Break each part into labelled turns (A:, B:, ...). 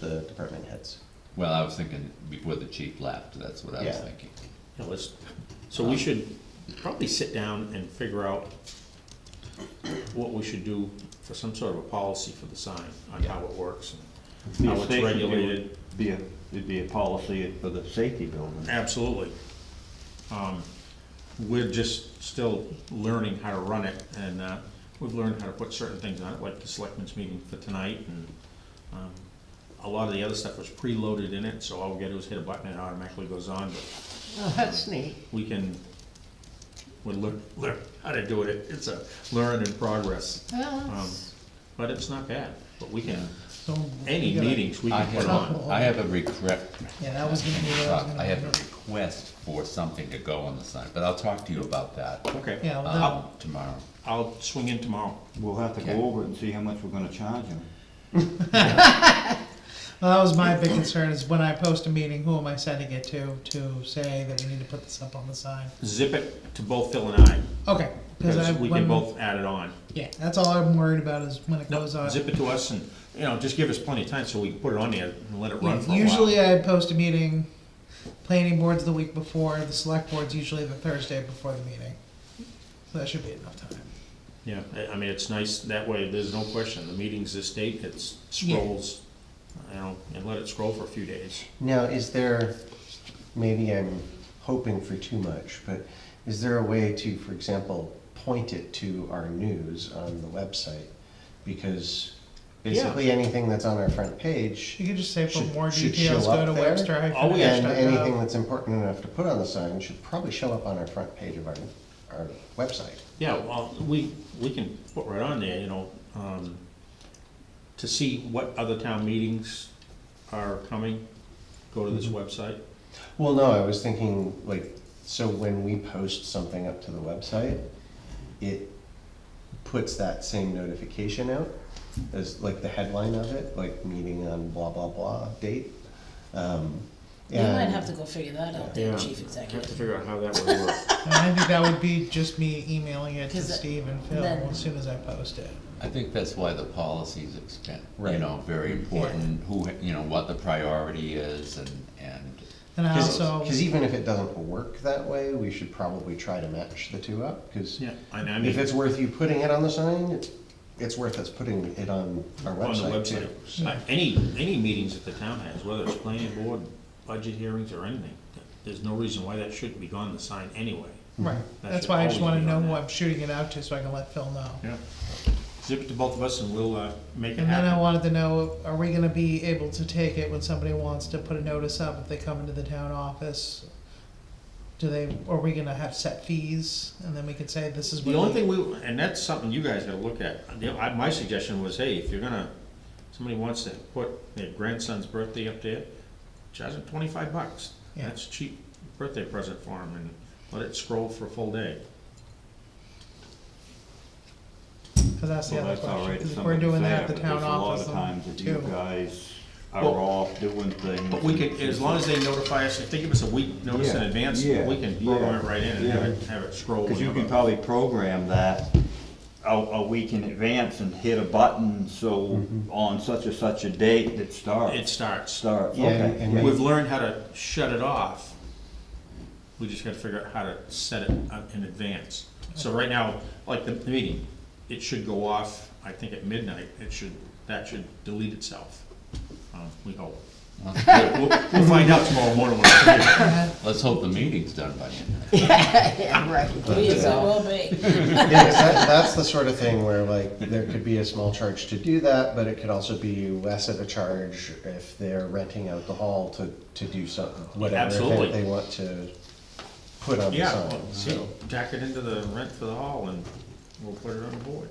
A: the department heads.
B: Well, I was thinking before the chief left, that's what I was
A: Yeah.
B: thinking.
C: It was, so we should probably sit down and figure out what we should do for some sort of a policy for the sign, on how it works and
D: The
C: how it's
D: safety
C: regulated.
D: would Be a, it'd be a policy for the safety building.
C: Absolutely. Um, We're just still learning how to run it, and uh, we've learned how to put certain things on it, like the selectmen's meeting for tonight, and um, a lot of the other stuff was preloaded in it, so all we gotta do is hit a button and it automatically goes on, but
A: Oh, that's neat.
C: we can, we learn, learn how to do it, it's a learn in progress. Um, But it's not bad, but we can,
E: So
C: any
E: we gotta-
C: meetings we
B: I
C: can put
B: have,
C: on.
B: I have a regret,
E: Yeah, that was gonna be what I was gonna.
B: I have a request for something to go on the sign, but I'll talk to you about that,
C: Okay,
E: Yeah, well, that-
B: um, tomorrow.
C: I'll swing in tomorrow.
D: We'll have to
B: Okay.
D: go over it and see how much we're gonna charge them.
E: well, that was my big concern, is when I post a meeting, who am I sending it to, to say that we need to put this up on the sign?
C: Zip it to both Phil and I,
E: Okay, cause I,
C: because we
E: when,
C: can both add it on.
E: yeah, that's all I'm worried about is when it
C: No,
E: goes on.
C: zip it to us and, you know, just give us plenty of time so we can put it on there and let it run
E: Yeah,
C: for a while.
E: Usually I post a meeting, planning board's the week before, the select board's usually the Thursday before the meeting. So that should be enough time.
C: Yeah, I- I mean, it's nice, that way, there's no question, the meeting's this date, it scrolls, you know, and let it scroll for a few days.
A: Now, is there, maybe I'm hoping for too much, but is there a way to, for example, point it to our news on the website? Because basically anything that's on our front page
E: You could just say for
A: Should-
E: more
A: should
E: details,
A: show
E: go
A: up
E: to
A: there.
E: Webster
C: Oh,
E: hyphen
C: yeah.
E: H
A: and
E: dot
A: anything
E: gov.
A: that's important enough to put on the sign should probably show up on our front page of our, our website.
C: Yeah, well, we, we can put right on there, you know, um, to see what other town meetings are coming, go to this website.
A: Well, no, I was thinking, like, so when we post something up to the website, it puts that same notification out as, like, the headline of it, like, meeting on blah, blah, blah date. Um,
F: We might
A: and-
F: have to go figure that out,
C: Yeah.
F: then,
C: Have
F: chief
C: to
F: executive.
C: figure out how that would work.
E: And I think that would be just me emailing it to
F: 'Cause it-
E: Steve and Phil
F: then-
E: as soon as I post it.
B: I think that's why the policies expand, you
A: Right.
B: know, very important, who, you know, what the priority is and, and,
E: And I
A: Cause,
E: also,
A: 'cause even if it doesn't work that way, we should probably try to match the two up, cause
C: Yeah, and I
A: if
C: mean,
A: it's worth you putting it on the sign, it- it's worth us putting it on our
C: on the
A: website
C: website,
A: too.
C: Uh, any, any meetings that the town has, whether it's planning board, budget hearings or anything, there's no reason why that shouldn't be on the sign anyway.
E: right,
C: That
E: Mm-hmm. that's
C: should
E: why I just
C: always
E: wanna
C: be on
E: know who
C: that.
E: I'm shooting it out to, so I can let Phil know.
C: Yeah. Zip it to both of us and we'll, uh, make it
E: And then I
C: happen.
E: wanted to know, are we gonna be able to take it when somebody wants to put a notice up if they come into the town office? Do they, are we gonna have set fees, and then we could say this is what.
C: The only
E: we-
C: thing we, and that's something you guys gotta look at, You know, I- my suggestion was, hey, if you're gonna, somebody wants to put their grandson's birthday up there, charge them twenty-five bucks.
E: Yeah.
C: That's a cheap birthday present for them, and let it scroll for a full day.
E: Cause that's the
D: Well,
E: other
D: that's all right
E: question,
D: if
E: 'cause if we're
D: somebody's
E: doing
D: there,
E: that at the
D: but
E: town office,
D: There's a lot of times that you
E: too.
D: guys are
C: Well-
D: off doing things.
C: But we could, as long as they notify us, if they give us a week notice in
D: Yeah,
C: advance,
D: yeah,
C: we can program it right in and have
D: yeah.
C: it, have it scroll.
D: Cause you
C: whenever.
D: can probably program that a, a week in advance and hit a button, so
E: Mm-hmm.
D: on such and such a date that starts.
C: It starts.
D: Starts,
A: Yeah,
D: okay.
A: and then-
C: We've learned how to shut it off. We just gotta figure out how to set it up in advance. So right now, like the meeting, it should go off, I think at midnight, it should, that should delete itself. Um, We hope.
B: let's
C: We'll,
B: hope-
C: we'll find out tomorrow morning when it's here.
B: let's hope the meeting's done by then.
F: Yeah, right. Please, it will be.
A: Yeah, 'cause that, that's the sort of thing where like, there could be a small charge to do that, but it could also be less of a charge if they're renting out the hall to, to do something, whatever
C: Absolutely.
A: event they want to put on the
C: Yeah,
A: sign,
C: well, see,
A: so,
C: jack it into the rent for the hall and we'll put it on the board.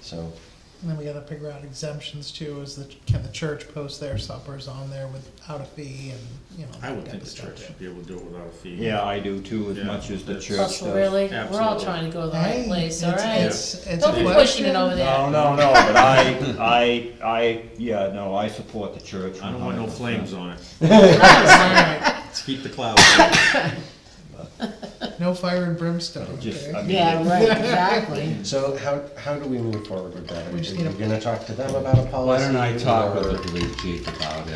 A: so.
E: And then we gotta figure out exemptions too, is the, can the church post their suppers on there without a fee and, you know.
C: I would
E: that
C: think the
E: stuff.
C: church should be able to do it without a fee.
D: Yeah, I do too, as
C: Yeah.
D: much as the
C: That's-
D: church does.
F: Russell, really? We're all
C: Absolutely.
F: trying to go to the
E: Hey,
F: right place, all
E: it's-
F: right?
E: it's- it's a
F: Don't be pushing
E: question.
F: it over there.
D: No, no, no, but I, I, I, yeah, no, I support the church.
C: I don't want no
D: 100%.
C: flames on it.
E: All right.
C: Let's keep the clouds.
E: no fire and brimstone,
D: Just,
E: okay?
D: I mean,
F: Yeah, right, exactly.
A: So how, how do we move forward with that? Are
E: We just
A: you
E: need a-
A: gonna talk to them about a policy?
B: Why don't I talk with
A: or-
B: the police chief about it?